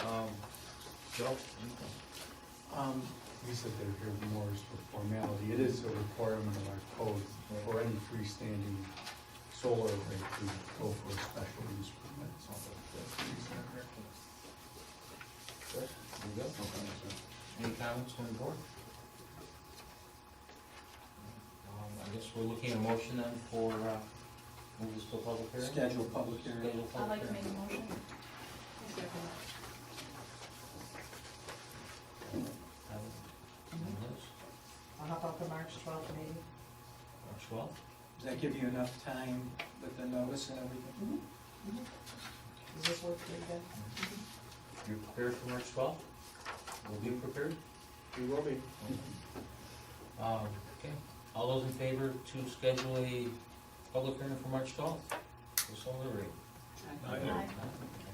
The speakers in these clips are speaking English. Um, Joe? Um, We said they're here more as for formality, it is a requirement of our code for any freestanding solar array to go for a special use permit, so that's the reason. Good, you go? Any comments from the board? Um, I guess we're looking at a motion then for, uh, move this to a public hearing? Schedule public hearing. Schedule I'd public like to hearing. make a motion. Comments? Anyone else? How about the March twelfth meeting? March twelfth? Does that give you enough time with the notice and uh, everything? Does this work for you guys? You're prepared for March twelfth? Will you be prepared? We will be. Mm-hmm. Um, okay, all those in favor to schedule a public hearing for March twelfth? For solar rate? Aye.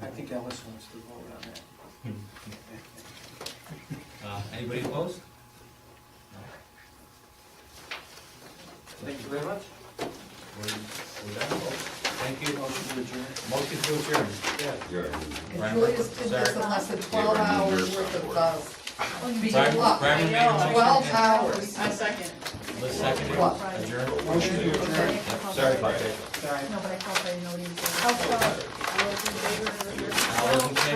I think Ellis wants to vote on that. Uh, anybody opposed? Thank you very much. We're, we're done. Thank you. Motion to adjourn. Motion to adjourn. And Julius did this in less than twelve hours worth of, uh, being Brian- luck. Brian made a motion. Twelve hours. I second. Let's second it. What? Adjourn. Motion to adjourn. Sorry about that. Sorry. No, but I felt I noticed. How about, all those in favor of adjournment? All those in favor?